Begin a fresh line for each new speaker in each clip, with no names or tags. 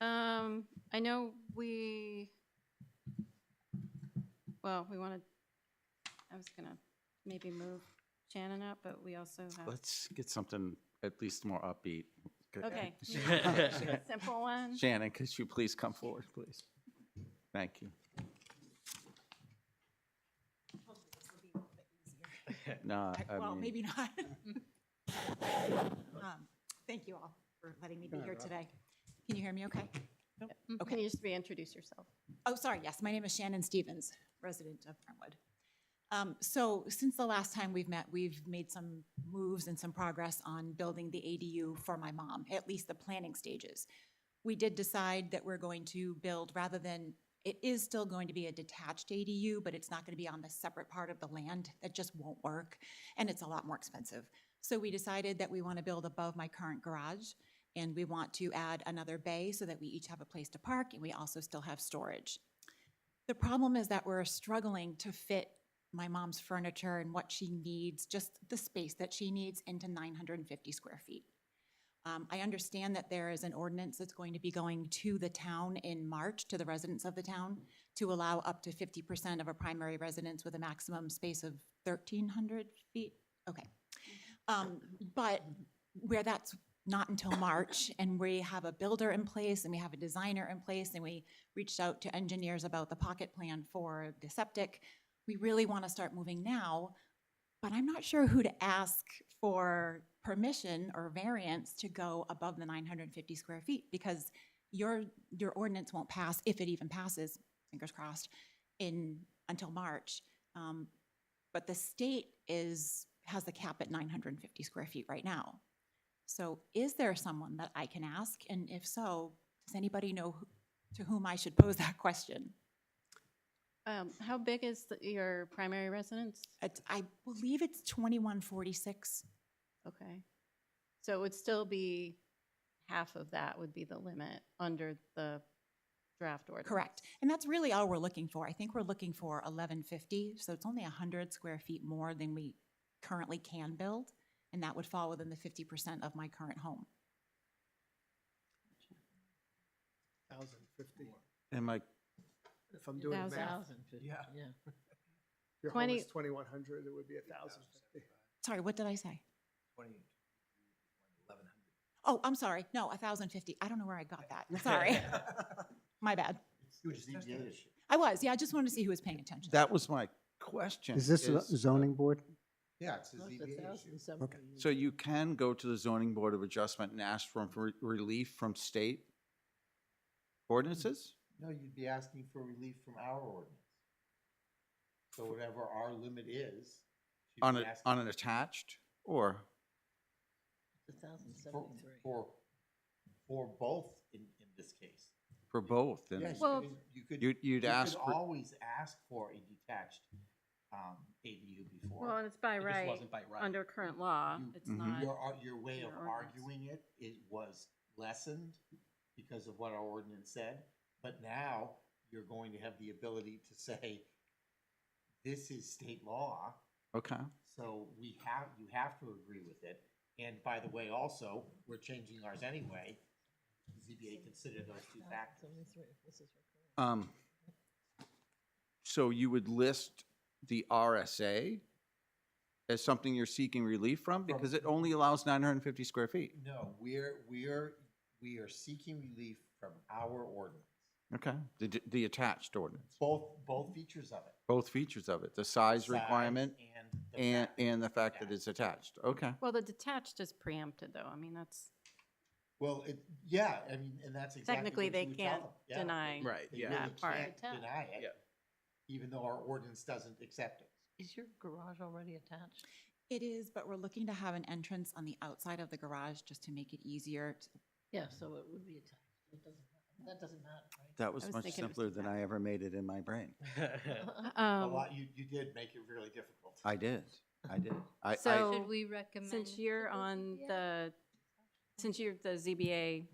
Um, I know we, well, we wanted, I was gonna maybe move Shannon up, but we also have,
Let's get something at least more upbeat. Good.
okay. Simple one.
Shannon, could you please come forward, please? Thank you. No,
I-
I
Well,
mean,
maybe not. Um, Thank you all for letting me be here today. Can you hear me okay?
Mhm. Can
Okay.
you just reintroduce yourself?
Oh, sorry, yes, my name is Shannon Stevens, resident of Brentwood. Um, So since the last time we've met, we've made some moves and some progress on building the ADU for my mom, at least the planning stages. We did decide that we're going to build, rather than, it is still going to be a detached ADU, but it's not going to be on the separate part of the land. That just won't work, and it's a lot more expensive. So we decided that we want to build above my current garage, and we want to add another bay so that we each have a place to park, and we also still have storage. The problem is that we're struggling to fit my mom's furniture and what she needs, just the space that she needs into 950 square feet. Um, I understand that there is an ordinance that's going to be going to the town in March, to the residents of the town, to allow up to 50% of a primary residence with a maximum space of 1,300 feet. Okay. Um, But where that's not until March, and we have a builder in place, and we have a designer in place, and we reached out to engineers about the pocket plan for the septic. We really want to start moving now, but I'm not sure who to ask for permission or variance to go above the 950 square feet, because your, your ordinance won't pass, if it even passes, fingers crossed, in, until March. Um, But the state is, has the cap at 950 square feet right now. So is there someone that I can ask? And if so, does anybody know who- to whom I should pose that question?
Um, how big is the- your primary residence?
It's- I believe it's 2146.
Okay. So it would still be, half of that would be the limit under the draft order.
Correct. And that's really all we're looking for. I think we're looking for 1150, so it's only 100 square feet more than we currently can build, and that would fall within the 50% of my current home.
Thousand fifty,
am I,
if I'm doing the math.
Thousand fifty,
Yeah.
yeah.
Your home
Twenty-
is twenty-one hundred, it would be a thousand fifty.
Sorry, what did I say? Oh, I'm sorry. No, 1,050. I don't know where I got that. Sorry. My bad.
You just need the other
I was, yeah, I just wanted to see who was paying attention.
that was my question.
Is this
uh,
a zoning board?
Yeah, it's
So you can go to the zoning board of adjustment and ask for re- relief from state ordinances?
No, you'd be asking for relief from our ordinance. So whatever our limit is. she'd
On,
be
a-
asking
on an attached or?
For, for, for both in, in this case.
For both, then?
Yes,
Well-
I mean, You could.
You'd, you'd
you could
ask, for-
always ask for a detached, um, ADU before.
Well, and it's by
It just
right,
wasn't by right.
under current law,
You-
it's
Mhm.
not.
Your, ar- uh, your way of
your ordinance.
arguing it, it was lessened because of what our ordinance said, but now you're going to have the ability to say, this is state law,
okay,
so we have, you have to agree with it. And by the way, also, we're changing ours anyway. ZBA considered those two factors.
um, so you would list the RSA as something you're seeking relief from, because it only allows nine hundred and fifty square feet,
No, we're, we're, we are seeking relief from our ordinance,
okay? The, d- the attached ordinance,
both, both features of it.
both features of it, the size requirement
and the
and,
fact.
and the fact that
attached.
it's attached, okay?
Well, the detached is preempted, though. I mean, that's,
Well, it, yeah, I mean, and that's exactly.
Technically,
what
they
you would tell
can't
them. Yeah,
deny.
Right,
They
yeah.
really
that part.
can't
Yeah.
deny it,
Yeah.
even though our ordinance doesn't accept it.
Is your garage already attached?
It is, but we're looking to have an entrance on the outside of the garage just to make it easier.
Yeah, so it would be attached. It doesn't, matter. that doesn't matter, right?
That was
was
much
thinking it was
simpler than I ever made it in my brain.
A
Um,
lot, you, you did make it really difficult.
I did, I did. I, I,
So,
Should we recommend?
since you're on the, since you're the ZBA,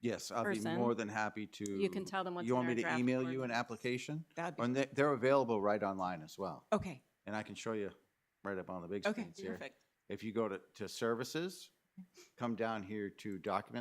yes, I'll be more
person,
than happy to.
you can tell them what's in
You want
our
me to
draft
email you an
ordinance.
application?
That'd
And
be,
they, they're available right online as well.
okay,
And I can show you right up on the big
okay,
screens here.
perfect.
If you go to, to services, come down here to document